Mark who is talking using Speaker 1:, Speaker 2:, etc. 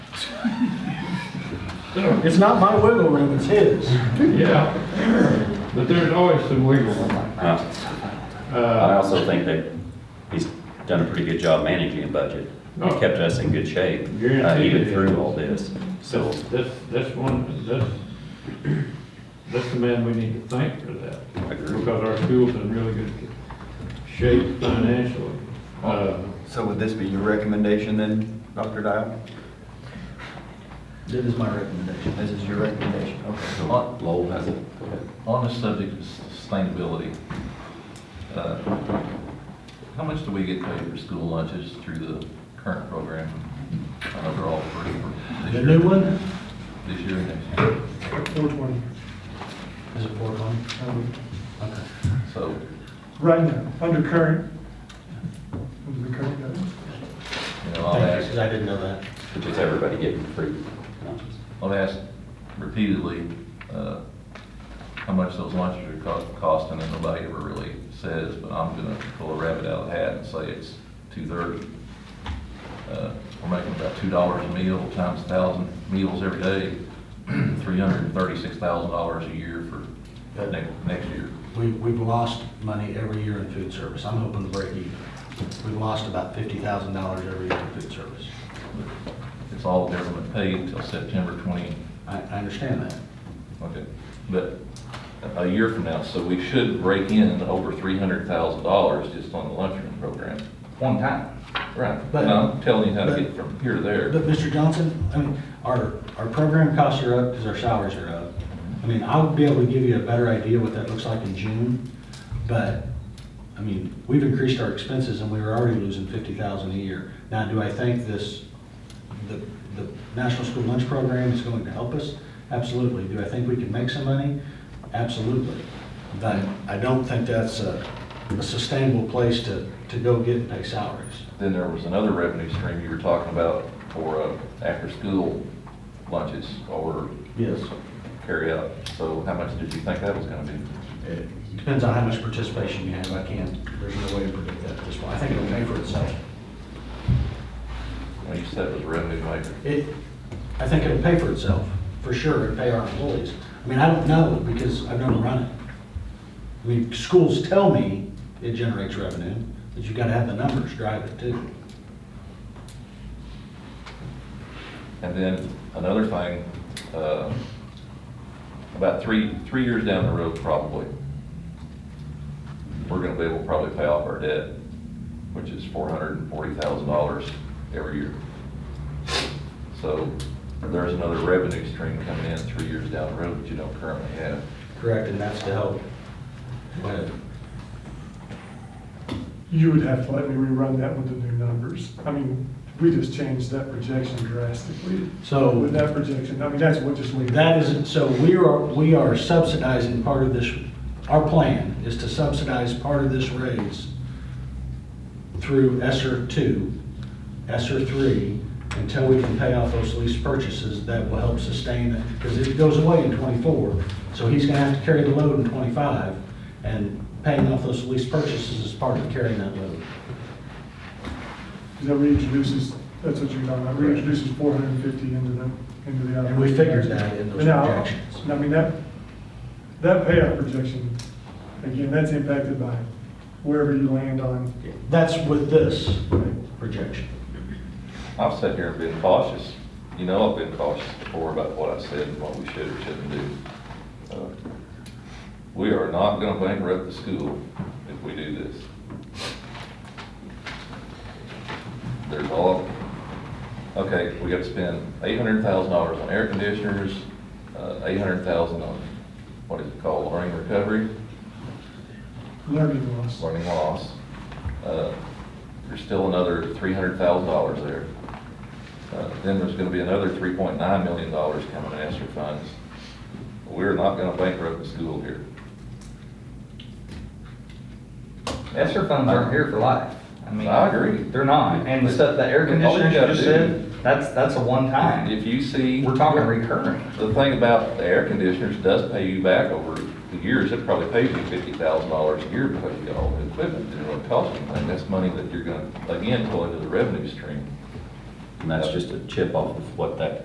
Speaker 1: It's not my wiggle room, it's his.
Speaker 2: Yeah, but there's always some wiggle room.
Speaker 3: Uh, I
Speaker 2: Uh,
Speaker 3: also think that he's done a pretty good job managing a budget. He
Speaker 2: Oh.
Speaker 3: kept us in good shape, uh,
Speaker 2: Guaranteed
Speaker 3: even
Speaker 2: it
Speaker 3: through
Speaker 2: is.
Speaker 3: all this. So,
Speaker 2: That's, that's one, that's, that's the man we need to thank for that.
Speaker 3: I agree.
Speaker 2: Because our school's in really good shape financially. Uh,
Speaker 4: So would this be your recommendation then, Dr. Dial?
Speaker 5: That is my recommendation.
Speaker 4: This is your recommendation, okay.
Speaker 5: On,
Speaker 3: Lowell has it. Go ahead.
Speaker 5: on the subject of sustainability, uh, how much do we get paid for school lunches through the current program? I know they're all free for this
Speaker 1: The
Speaker 5: year.
Speaker 1: new one,
Speaker 5: This year and next year.
Speaker 1: four twenty. Is it four twenty?
Speaker 6: Um,
Speaker 5: So
Speaker 1: Right now, under current. Under the current guidance.
Speaker 5: You know, I'll ask,
Speaker 1: I didn't know that.
Speaker 3: Which is everybody getting free lunches.
Speaker 5: I'll ask repeatedly, uh, how much those lunches are co- costing, and nobody ever really says, but I'm gonna pull a rabbit out of the hat and say it's two thirty. Uh, we're making about two dollars a meal times a thousand meals every day, three hundred and thirty-six thousand dollars a year for next, next year.
Speaker 7: We, we've lost money every year in food service. I'm hoping to break even. We've lost about fifty thousand dollars every year in food service.
Speaker 5: It's all government paid until September twenty
Speaker 7: I, I understand that.
Speaker 5: Okay, but a year from now, so we should break in over three hundred thousand dollars just on the lunchroom program, one time. Right,
Speaker 7: But-
Speaker 5: and I'm telling you how to
Speaker 7: but-
Speaker 5: get from here to there.
Speaker 7: But Mr. Johnson, I mean, our, our program costs are up because our salaries are up. I mean, I'll be able to give you a better idea what that looks like in June, but, I mean, we've increased our expenses and we were already losing fifty thousand a year. Now, do I think this, the, the National School Lunch Program is going to help us? Absolutely. Do I think we can make some money? Absolutely. But I don't think that's a a sustainable place to, to go get and pay salaries.
Speaker 5: Then there was another revenue stream you were talking about for, uh, after-school lunches or
Speaker 7: Yes.
Speaker 5: carry-out. So how much did you think that was gonna be?
Speaker 7: It Depends on how much participation you have, I can't, there's no way to predict that at this point, I think it'll pay for itself.
Speaker 5: Well, you said it was a revenue maker.
Speaker 7: It, I think it'll pay for itself, for sure, and pay our employees. I mean, I don't know, because I've never run it. I mean, schools tell me it generates revenue, but you gotta have the numbers drive it too.
Speaker 5: And then another thing, uh, about three, three years down the road probably, we're gonna be able to probably pay off our debt, which is four hundred and forty thousand dollars every year. So there's another revenue stream coming in three years down the road that you don't currently have.
Speaker 7: Correct, and that's to help. with-
Speaker 6: You would have to let me rerun that with the new numbers. I mean, we just changed that projection drastically.
Speaker 7: So-
Speaker 6: With that projection, I mean, that's what just. we-
Speaker 7: That isn't, so we are, we are subsidizing part of this, our plan is to subsidize part of this raise through ESER two, ESER three, until we can pay off those lease purchases that will help sustain it, because it goes away in twenty-four. So he's gonna have to carry the load in twenty-five, and paying off those lease purchases is part of carrying that load.
Speaker 6: That reintroduces, that's what you're talking about, reintroduces four hundred and fifty into the, into the.
Speaker 7: And we figured that in those
Speaker 6: And now-
Speaker 7: projections.
Speaker 6: and I mean, that, that payout projection, again, that's impacted by wherever you land on.
Speaker 7: That's with this projection.
Speaker 5: I've sat here and been cautious, you know, I've been cautious before about what I said and what we should or shouldn't do. Uh, We are not gonna bankrupt the school if we do this. There's all, okay, we gotta spend eight hundred thousand dollars on air conditioners, uh, eight hundred thousand on, what is it called, learning recovery?
Speaker 6: Learning loss.
Speaker 5: learning loss. Uh, There's still another three hundred thousand dollars there. Uh, Then there's gonna be another three point nine million dollars coming in ESSER funds. We're not gonna bankrupt the school here.
Speaker 8: ESER funds aren't here for life. mean,
Speaker 5: I agree.
Speaker 8: They're not. And the stuff, the air
Speaker 5: All you
Speaker 8: conditioner you
Speaker 5: gotta
Speaker 8: just
Speaker 5: do-
Speaker 8: said, that's, that's a one-time.
Speaker 5: If you see.
Speaker 8: We're talking recurring.
Speaker 5: The thing about the air conditioners does pay you back over the years. It probably pays you fifty thousand dollars a year because you got all the equipment. It didn't really cost you anything. That's money that you're gonna, again, pull into the revenue stream.
Speaker 3: And that's just a chip off of what that